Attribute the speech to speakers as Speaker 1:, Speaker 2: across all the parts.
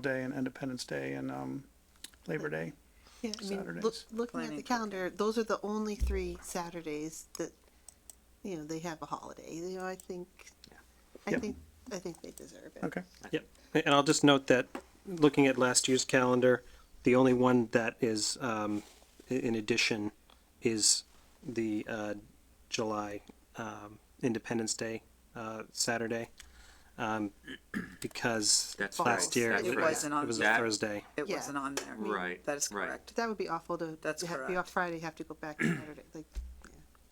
Speaker 1: Day and Independence Day and um, Labor Day.
Speaker 2: Yeah, I mean, look,
Speaker 1: Saturdays.
Speaker 2: looking at
Speaker 3: Planning
Speaker 2: the
Speaker 3: for-
Speaker 2: calendar, those are the only three Saturdays that, you know, they have a holiday, you know, I think, I
Speaker 1: Yep.
Speaker 2: think, I think they deserve it.
Speaker 1: Okay.
Speaker 4: Yep, and I'll just note that, looking at last year's calendar, the only one that is um, i- in addition is the uh, July um, Independence Day uh, Saturday, um, because
Speaker 5: That's
Speaker 4: last
Speaker 5: right,
Speaker 4: year
Speaker 5: that's
Speaker 4: it
Speaker 5: right.
Speaker 4: was it was a
Speaker 5: That-
Speaker 4: Thursday.
Speaker 3: It
Speaker 2: Yeah.
Speaker 3: wasn't on there.
Speaker 5: Right,
Speaker 3: That is
Speaker 5: right.
Speaker 3: correct.
Speaker 2: That would be awful to,
Speaker 3: That's
Speaker 2: to ha- be
Speaker 3: correct.
Speaker 2: off Friday, have to go back to Saturday, like,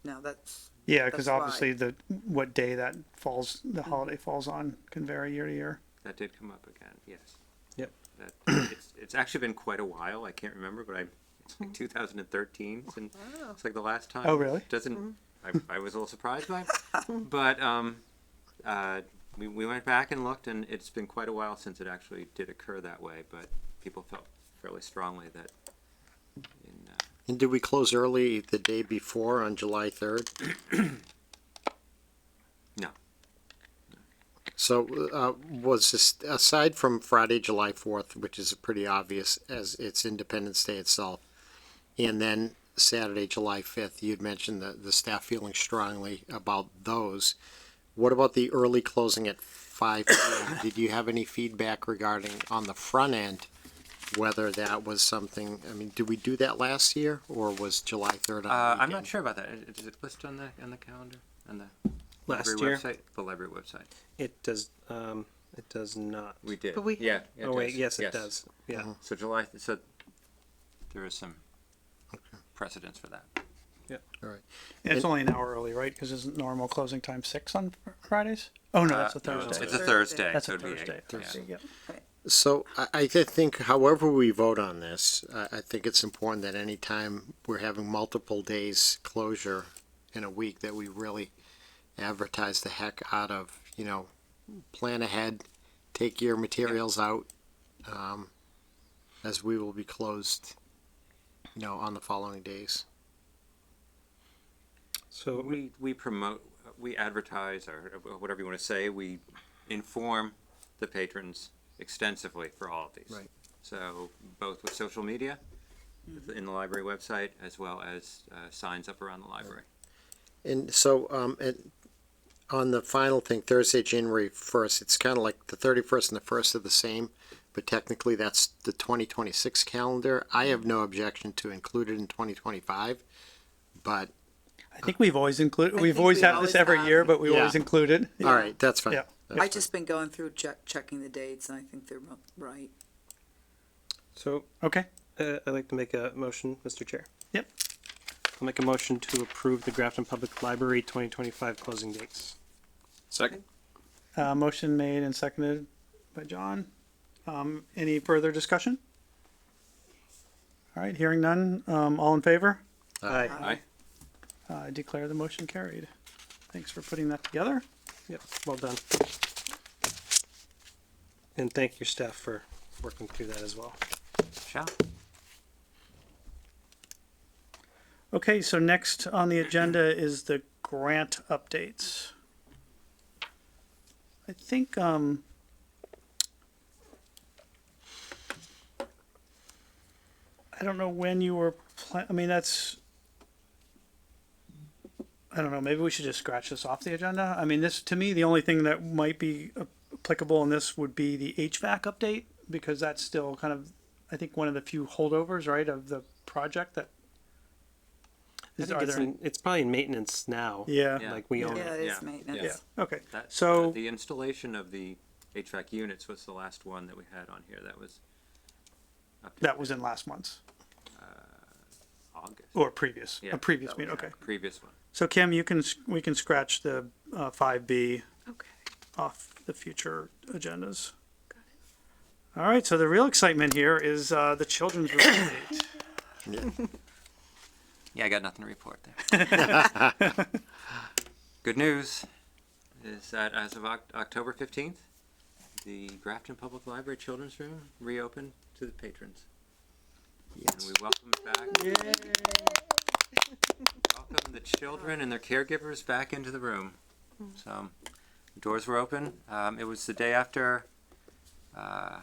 Speaker 3: No, that's,
Speaker 1: Yeah, because
Speaker 3: That's why.
Speaker 1: obviously the what day that falls, the holiday falls on, can vary year to year.
Speaker 5: That did come up again, yes.
Speaker 4: Yep.
Speaker 5: That, it's, it's actually been quite a while, I can't remember, but I, it's
Speaker 4: Hmm.
Speaker 5: like two thousand and thirteen, and it's like the last time.
Speaker 1: Oh, really?
Speaker 5: Doesn't, I,
Speaker 4: Mm-hmm.
Speaker 5: I was a little surprised by, it. but, um, uh, we, we went back and looked, and it's been quite a while since it actually did occur that way, but people felt fairly strongly that in, uh,
Speaker 6: And did we close early the day before on July third?
Speaker 5: No.
Speaker 6: So, uh, was this, aside from Friday, July fourth, which is pretty obvious as it's Independence Day itself, and then Saturday, July fifth, you'd mentioned the, the staff feeling strongly about those. What about the early closing at five? p.m.? Did you have any feedback regarding on the front end? Whether that was something, I mean, did we do that last year or was July third on
Speaker 5: uh,
Speaker 6: the
Speaker 5: I'm
Speaker 6: weekend?
Speaker 5: not sure about that, is it listed on the, on the calendar, on the
Speaker 4: Last
Speaker 5: library
Speaker 4: year,
Speaker 5: website? The library website.
Speaker 4: it does, um, it does not.
Speaker 5: We did,
Speaker 2: But we-
Speaker 5: yeah. it
Speaker 4: Oh wait,
Speaker 5: does. Mm-hmm.
Speaker 4: yes, it does, yeah.
Speaker 5: So July, so there is some precedence for that.
Speaker 1: And it's
Speaker 6: And-
Speaker 1: only an hour early, right? Because isn't normal closing time six on fr- Fridays? Oh no, that's a Thursday.
Speaker 5: Uh, It's a Thursday.
Speaker 1: That's
Speaker 5: so
Speaker 1: a
Speaker 5: it'd be eight,
Speaker 1: Thursday.
Speaker 5: yeah.
Speaker 1: Thursday. Yep.
Speaker 6: So I, I thi- think however we vote on this, I, I think it's important that any time we're having multiple days closure in a week, that we really advertise the heck out of, you know, plan ahead, take your materials out, um, as we will be closed, you know, on the following days.
Speaker 4: So
Speaker 5: We, we promote, we advertise, or whatever you want to say, we inform the patrons extensively for all of these.
Speaker 6: Right.
Speaker 5: So both with social media,
Speaker 1: Mm-hmm.
Speaker 5: in the library website, as well as uh, signs up around the library.
Speaker 6: And so, um, and on the final thing, Thursday, January first, it's kind of like the thirty-first and the first are the same, but technically that's the twenty twenty-six calendar. I have no objection to include it in twenty twenty-five, but,
Speaker 1: I think we've always included.
Speaker 3: I
Speaker 1: We've
Speaker 3: think
Speaker 1: always
Speaker 3: we
Speaker 1: had
Speaker 3: always
Speaker 1: this every
Speaker 3: have.
Speaker 1: year, but we
Speaker 6: Yeah.
Speaker 1: always included.
Speaker 6: all right, that's fine.
Speaker 1: Yeah.
Speaker 3: I've just been going through, check, checking the dates, and I think they're mo- right.
Speaker 4: So
Speaker 1: Okay.
Speaker 4: uh, I'd like to make a motion, Mr. Chair.
Speaker 1: Yep.
Speaker 4: I'll make a motion to approve the Grafton Public Library 2025 closing dates.
Speaker 7: Second.
Speaker 1: Uh, motion made and seconded by John. Um, any further discussion? All right. Hearing none. Um, all in favor?
Speaker 4: Aye.
Speaker 5: Aye.
Speaker 1: Uh, I declare the motion carried. Thanks for putting that together.
Speaker 4: Yep, well done. And thank your staff for working through that as well.
Speaker 5: Shall?
Speaker 1: Okay, so next on the agenda is the grant updates. I think, um, I don't know when you were pla- I mean, that's, I don't know, maybe we should just scratch this off the agenda. I mean, this, to me, the only thing that might be applicable in this would be the HVAC update, because that's still kind of, I think, one of the few holdovers, right, of the project that
Speaker 4: I
Speaker 1: is,
Speaker 4: think
Speaker 1: are
Speaker 4: it's,
Speaker 1: there?
Speaker 4: in, it's probably in maintenance now.
Speaker 1: Yeah.
Speaker 5: Yeah.
Speaker 4: Like we own
Speaker 3: Yeah,
Speaker 4: it.
Speaker 3: it
Speaker 5: Yeah,
Speaker 3: is
Speaker 5: yeah.
Speaker 3: maintenance.
Speaker 1: Okay.
Speaker 5: That- uh,
Speaker 1: So-
Speaker 5: The installation of the HVAC units was the last one that we had on here. That was. up
Speaker 1: That was in last month's
Speaker 5: August.
Speaker 1: or previous,
Speaker 5: Yeah,
Speaker 1: a previous
Speaker 5: that was
Speaker 1: meeting. Okay.
Speaker 5: our Previous one.
Speaker 1: So Kim, you can, s- we can scratch the uh, 5B
Speaker 8: Okay.
Speaker 1: off the future agendas. All right. So the real excitement here is uh, the children's room update.
Speaker 5: Yeah, I got nothing to report there. Good news is that as of Oc- October 15th, the Grafton Public Library Children's Room reopened to the patrons. And we welcome back. Welcome the children and their caregivers back into the room. So, um, doors were open. Um, it was the day after uh,